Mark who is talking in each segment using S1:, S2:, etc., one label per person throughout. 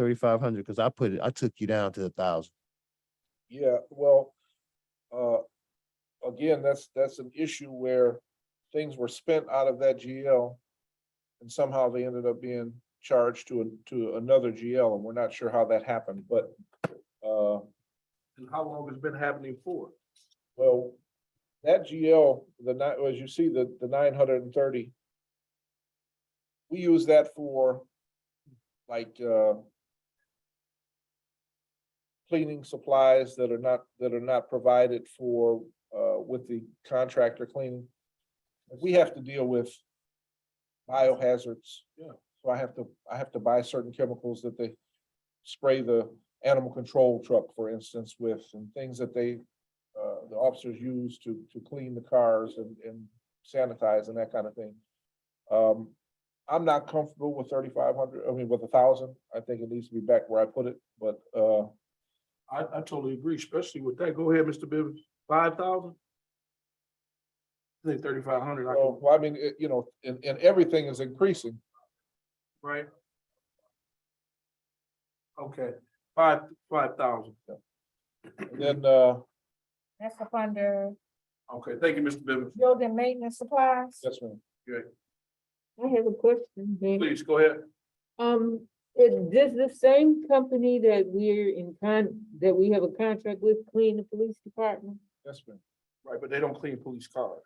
S1: thirty-five hundred, because I put it, I took you down to a thousand.
S2: Yeah, well, uh, again, that's, that's an issue where things were spent out of that GL. And somehow they ended up being charged to, a- to another GL and we're not sure how that happened, but, uh. And how long has been happening for? Well, that GL, the night, as you see, the, the nine hundred and thirty. We use that for like, uh, cleaning supplies that are not, that are not provided for, uh, with the contractor cleaning. We have to deal with biohazards. Yeah. So I have to, I have to buy certain chemicals that they spray the animal control truck, for instance, with and things that they, uh, the officers use to, to clean the cars and, and sanitize and that kind of thing. Um, I'm not comfortable with thirty-five hundred, I mean, with a thousand. I think it needs to be back where I put it, but, uh, I, I totally agree, especially with that. Go ahead, Mr. Bibbs, five thousand? I think thirty-five hundred. Well, I mean, it- you know, and, and everything is increasing. Right. Okay, five, five thousand. Then, uh,
S3: That's up under
S2: okay, thank you, Mr. Bibbs.
S3: building maintenance supplies.
S2: Yes, ma'am.
S4: I have a question, Vic.
S2: Please, go ahead.
S4: Um, is this the same company that we're in con, that we have a contract with clean the police department?
S2: Yes, ma'am. Right, but they don't clean police cars.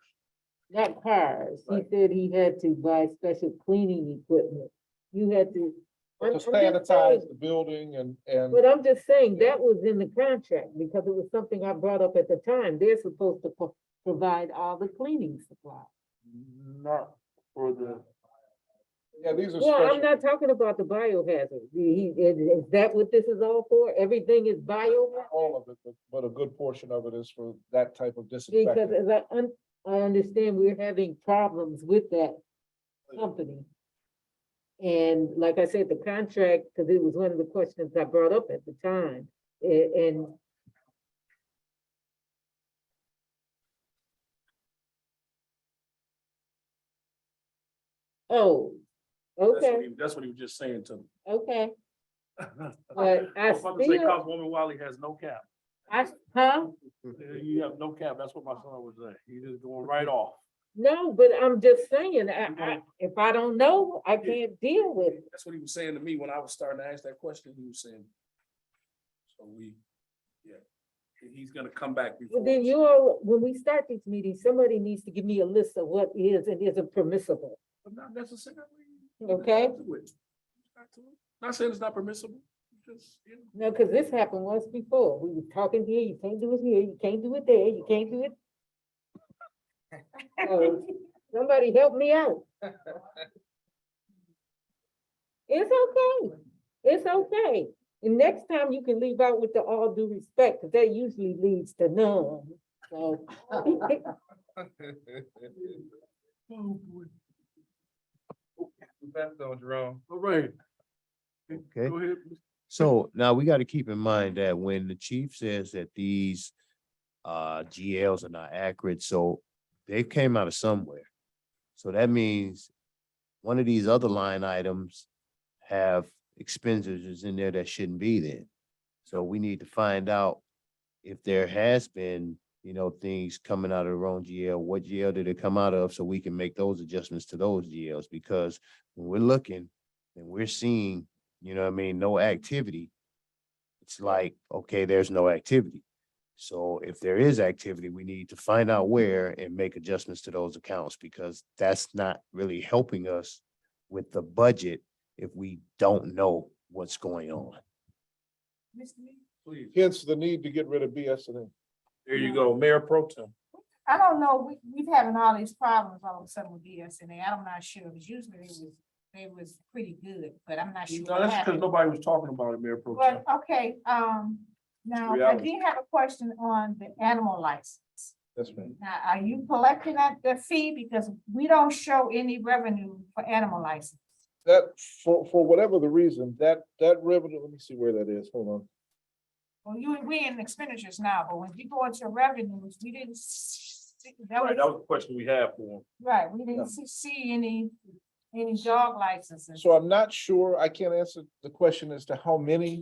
S4: Not cars. He
S2: Right.
S4: said he had to buy special cleaning equipment. You had to. I'm-
S2: To
S4: I'm just saying-
S2: sanitize the building and, and,
S4: But I'm just saying, that was in the contract because it was something I brought up at the time. They're supposed to pro- provide all the cleaning supplies.
S2: not for the. Yeah, these are
S4: Well, I'm
S2: special,
S4: not talking about the biohazard. He- he- is that what this is all for? Everything is biohazard?
S2: all of it, but, but a good portion of it is for that type of
S4: Because
S2: disinfectant.
S4: as I, un- I understand we're having problems with that company. And like I said, the contract, because it was one of the questions I brought up at the time, a- and Oh,
S5: That's what
S4: okay,
S5: he, that's what he was just saying to me.
S4: okay, but
S2: Oh,
S4: I
S5: was about to say,
S4: still,
S5: Councilwoman Wiley has no cap.
S4: I, huh?
S5: You have no cap. That's what my son was saying. He's just going right off.
S4: No, but I'm just saying, I,
S5: You
S4: I,
S5: know-
S4: if I don't know, I
S5: Yeah.
S4: can't deal with it.
S5: That's what he was saying to me when I was starting to ask that question. He was saying. So we, yeah, he- he's gonna come back before.
S4: Well, then
S5: us.
S4: you all, when we start these meetings, somebody needs to give me a list of what is and isn't permissible.
S5: But not necessarily.
S4: Okay.
S5: Do it. Not to it. Not saying it's not permissible, just, you know.
S4: No, because this happened once before. We were talking here, you can't do it here, you can't do it there, you can't do it. So, Somebody help me out. It's okay. It's okay. And next time you can leave out with the all due respect, because that usually leads to none. So,
S5: Oh, boy.
S2: That's no Jerome.
S5: All right,
S1: Okay.
S5: go ahead.
S1: So now we gotta keep in mind that when the chief says that these uh GLs are not accurate, so they came out of somewhere. So that means one of these other line items have expenditures in there that shouldn't be there. So we need to find out if there has been, you know, things coming out of the wrong GL, what GL did it come out of? So we can make those adjustments to those GLs because when we're looking and we're seeing you know what I mean? No activity. It's like, okay, there's no activity. So if there is activity, we need to find out where and make adjustments to those accounts because that's not really helping us with the budget if we don't know what's going on.
S5: Please.
S2: Hence the need to get rid of BS and
S5: There you go, Mayor Pro Tem.
S3: I don't know, we, we've having all these problems all of a sudden with DSNA. I'm not sure, because usually they was, they was pretty good, but I'm not sure
S5: No,
S3: what
S5: that's because
S3: happened.
S5: nobody was talking about it, Mayor Pro Tem.
S3: But, okay, um, now, I
S5: reality.
S3: did have a question on the animal license.
S2: Yes, ma'am.
S3: Now, are you collecting that, the fee? Because we don't show any revenue for animal license.
S2: That, for, for whatever the reason, that, that revenue, let me see where that is, hold on.
S3: Well, you, we in expenditures now, but when you go into revenues, we didn't s- see, that
S5: Right, that
S3: was,
S5: was the question we had for him.
S3: right, we
S2: Yeah.
S3: didn't see, see any any dog licenses.
S2: So I'm not sure, I can't answer the question as to how many